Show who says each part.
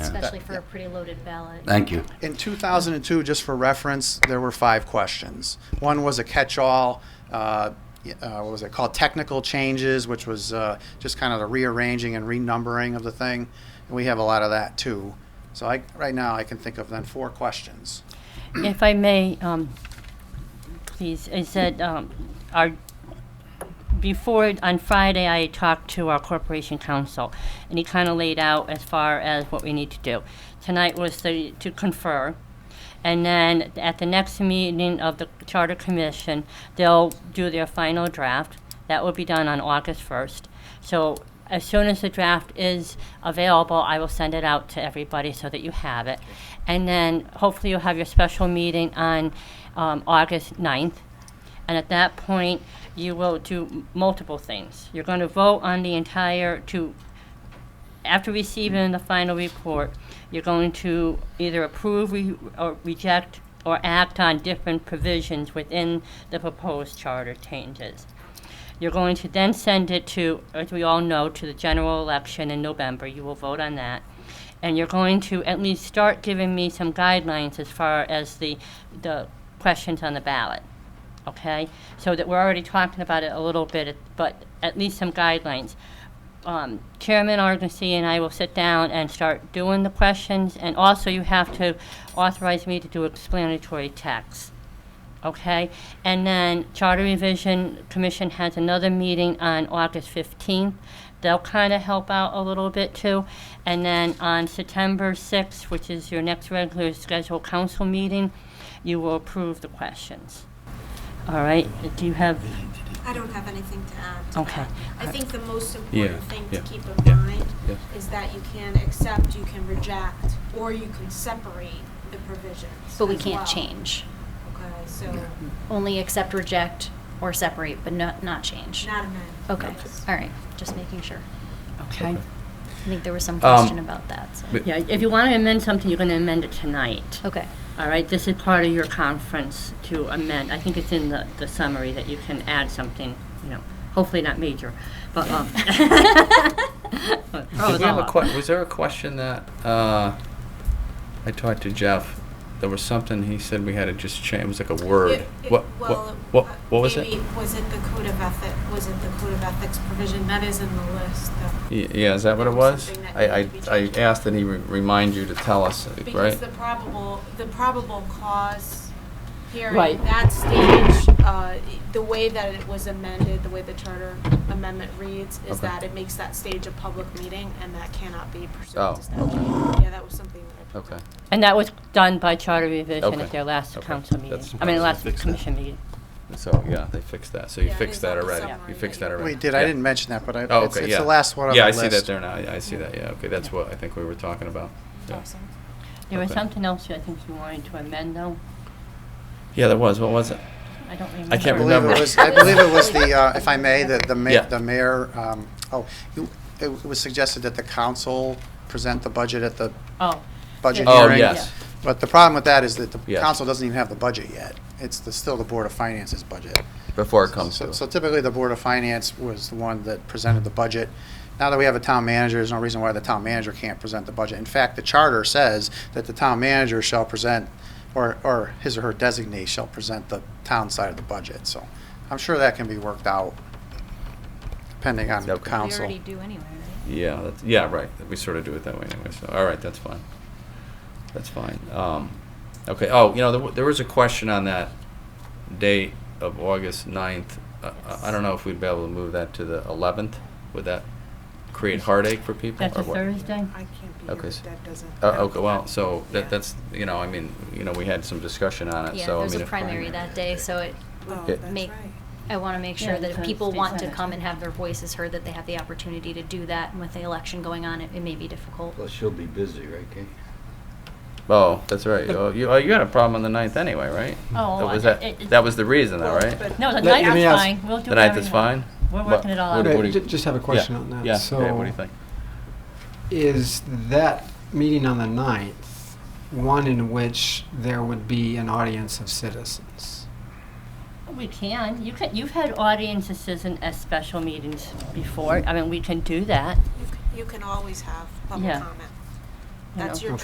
Speaker 1: especially for a pretty loaded ballot.
Speaker 2: Thank you.
Speaker 3: In 2002, just for reference, there were five questions. One was a catch-all, uh, y- uh, what was it called, technical changes, which was uh, just kind of the rearranging and renumbering of the thing. And we have a lot of that too. So I, right now, I can think of then four questions.
Speaker 4: If I may, um, please, I said, um, our, before, on Friday, I talked to our corporation counsel, and he kind of laid out as far as what we need to do. Tonight was the, to confer, and then at the next meeting of the Charter Commission, they'll do their final draft. That will be done on August 1st. So as soon as the draft is available, I will send it out to everybody so that you have it. And then hopefully you'll have your special meeting on um, August 9th. And at that point, you will do m- multiple things. You're going to vote on the entire, to after receiving the final report, you're going to either approve re- or reject or act on different provisions within the proposed charter changes. You're going to then send it to, as we all know, to the general election in November. You will vote on that. And you're going to at least start giving me some guidelines as far as the, the questions on the ballot okay? So that we're already talking about it a little bit, but at least some guidelines. Um, Chairman Argosy and I will sit down and start doing the questions, and also you have to authorize me to do explanatory text, okay? And then Charter Revision Commission has another meeting on August 15th. They'll kind of help out a little bit too. And then on September 6th, which is your next regular scheduled council meeting, you will approve the questions. All right, do you have,
Speaker 5: I don't have anything to add. to
Speaker 4: Okay.
Speaker 5: that. I think the most
Speaker 6: Yeah,
Speaker 5: important thing to
Speaker 6: yeah,
Speaker 5: keep
Speaker 6: yeah,
Speaker 5: in mind
Speaker 6: yeah.
Speaker 5: is that you can accept, you can reject, or you can separate the provisions.
Speaker 1: But we
Speaker 5: as
Speaker 1: can't
Speaker 5: well.
Speaker 1: change.
Speaker 5: Okay, so
Speaker 1: Only accept, reject, or separate, but not, not change.
Speaker 5: not amend.
Speaker 1: Okay,
Speaker 5: Yes.
Speaker 1: all right, just making sure.
Speaker 4: okay.
Speaker 1: I think there was some
Speaker 6: Um,
Speaker 1: question about that, so.
Speaker 6: but-
Speaker 4: Yeah, if you want to amend something, you're going to amend it tonight.
Speaker 1: Okay,
Speaker 4: All right, this is part of your conference to amend. I think it's in the, the summary that you can add something, you know, hopefully not major, but, um. Oh,
Speaker 6: Did we have a que- was there a question that uh, I talked to Jeff? There was something he said we had to just change. It was like a word.
Speaker 5: It- it-
Speaker 6: what,
Speaker 5: well, uh,
Speaker 6: what, what, what was
Speaker 5: maybe
Speaker 6: it?
Speaker 5: Was it the code of ethic, was it the code of ethics provision? That is in the list, though.
Speaker 6: Y- Yeah, is that what it
Speaker 5: There was
Speaker 6: was?
Speaker 5: something that
Speaker 6: I, I,
Speaker 5: needed to be
Speaker 6: I
Speaker 5: changed.
Speaker 6: asked that he re- remind you to tell us,
Speaker 5: Because
Speaker 6: right?
Speaker 5: the probable, the probable cause hearing,
Speaker 4: Right.
Speaker 5: that stage, uh, the way that it was amended, the way the charter amendment reads, is
Speaker 6: Okay.
Speaker 5: that it makes that stage a public meeting, and that cannot be
Speaker 6: Oh,
Speaker 5: pursuant to statute. Yeah, that was something that I.
Speaker 6: Okay.
Speaker 4: And that was done by charter revision
Speaker 6: Okay,
Speaker 4: at their last
Speaker 6: okay.
Speaker 4: council meeting,
Speaker 6: That's-
Speaker 4: I mean, last commission meeting.
Speaker 6: So yeah, they fixed that. So you
Speaker 5: Yeah, it
Speaker 6: fixed
Speaker 5: is
Speaker 6: that
Speaker 5: on the
Speaker 6: already.
Speaker 5: summary
Speaker 6: You fixed
Speaker 5: that
Speaker 6: that
Speaker 5: you-
Speaker 6: already.
Speaker 5: Right.
Speaker 3: We did, I
Speaker 6: Yeah.
Speaker 3: didn't mention that, but I,
Speaker 6: Oh,
Speaker 3: it's
Speaker 6: okay.
Speaker 3: it's
Speaker 6: yeah.
Speaker 3: the last one on the
Speaker 6: yeah,
Speaker 3: list.
Speaker 6: I see that there now. Yeah, I see that. Yeah, okay. That's what I think we were talking about. Yeah,
Speaker 5: Awesome.
Speaker 4: There was
Speaker 6: Okay.
Speaker 4: something else I think you wanted to amend though,
Speaker 6: yeah there was. What was it?
Speaker 4: I don't remember.
Speaker 6: I can't
Speaker 3: I believe
Speaker 6: remember.
Speaker 3: it was, I believe it was the, uh, if I may, the, the
Speaker 6: Yeah.
Speaker 3: mayor, the mayor, um, oh, you- it was suggested that the council present the budget at the
Speaker 4: Oh.
Speaker 3: budget
Speaker 4: yeah.
Speaker 6: Oh,
Speaker 3: hearing.
Speaker 6: yes.
Speaker 3: But the problem with that is that the
Speaker 6: Yes.
Speaker 3: council doesn't even have the budget yet. It's the, still the Board of Finance's budget.
Speaker 6: Before it comes
Speaker 3: So-
Speaker 6: to.
Speaker 3: So typically, the Board of Finance was the one that presented the budget. Now that we have a town manager, there's no reason why the town manager can't present the budget. In fact, the charter says that the town manager shall present, or, or his or her designee shall present the town side of the budget. So I'm sure that can be worked out, depending on
Speaker 6: Okay. We
Speaker 1: we
Speaker 3: council.
Speaker 1: already do anyway, right?
Speaker 6: Yeah, that's, yeah, right. We sort of do it that way anyway. So, all right, that's fine. That's fine. Um, okay. Oh, you know, there, w- there was a question on that date of August 9th. Uh, I, I don't know if we'd be able to move that to the 11th. Would that create heartache for people?
Speaker 4: That's
Speaker 6: or
Speaker 4: a
Speaker 6: what?
Speaker 4: Thursday?
Speaker 7: I can't be here,
Speaker 6: Okay.
Speaker 7: but
Speaker 6: so-
Speaker 7: that doesn't.
Speaker 6: Uh, okay. Well, so
Speaker 7: Yeah.
Speaker 6: that, that's you know, I mean, you know, we had some discussion on it.
Speaker 1: Yeah,
Speaker 6: so
Speaker 1: there's
Speaker 6: I mean,
Speaker 1: a
Speaker 6: if
Speaker 1: primary that day, so it,
Speaker 7: Oh,
Speaker 6: Okay.
Speaker 7: that's
Speaker 1: make-
Speaker 7: right.
Speaker 1: I want to make
Speaker 4: Yeah,
Speaker 1: sure that if
Speaker 4: because
Speaker 1: people
Speaker 4: state
Speaker 1: want to
Speaker 4: senate.
Speaker 1: come and have their voices heard, that they have the opportunity to do that, and with the election going on, it it may be difficult.
Speaker 8: Well, she'll be busy, right, Kate?
Speaker 6: Oh, that's right. Oh, you oh, you had a problem on the 9th anyway, right?
Speaker 4: Oh,
Speaker 6: that was
Speaker 4: I-
Speaker 6: that.
Speaker 4: it-
Speaker 6: that was the reason, though,
Speaker 7: Well,
Speaker 6: right?
Speaker 7: but-
Speaker 4: No, the
Speaker 9: Let- let
Speaker 4: night
Speaker 9: me
Speaker 4: is
Speaker 9: ask-
Speaker 4: fine, we'll do
Speaker 6: the 9th is
Speaker 4: everything.
Speaker 6: fine.
Speaker 4: We're
Speaker 6: But
Speaker 4: working it all
Speaker 6: what-
Speaker 4: out.
Speaker 6: what do you-
Speaker 9: Ju- Just have a question
Speaker 6: yeah,
Speaker 9: on that.
Speaker 6: Yeah. Dave,
Speaker 9: So
Speaker 6: what do you think?
Speaker 9: Is that meeting on the 9th one in which there would be an audience of citizens?
Speaker 4: We can. You can. You've had audiences and as special meetings before. I mean, we can do that.
Speaker 5: You c- You can always have public
Speaker 4: Yeah.
Speaker 5: comment.
Speaker 4: you know.
Speaker 5: That's your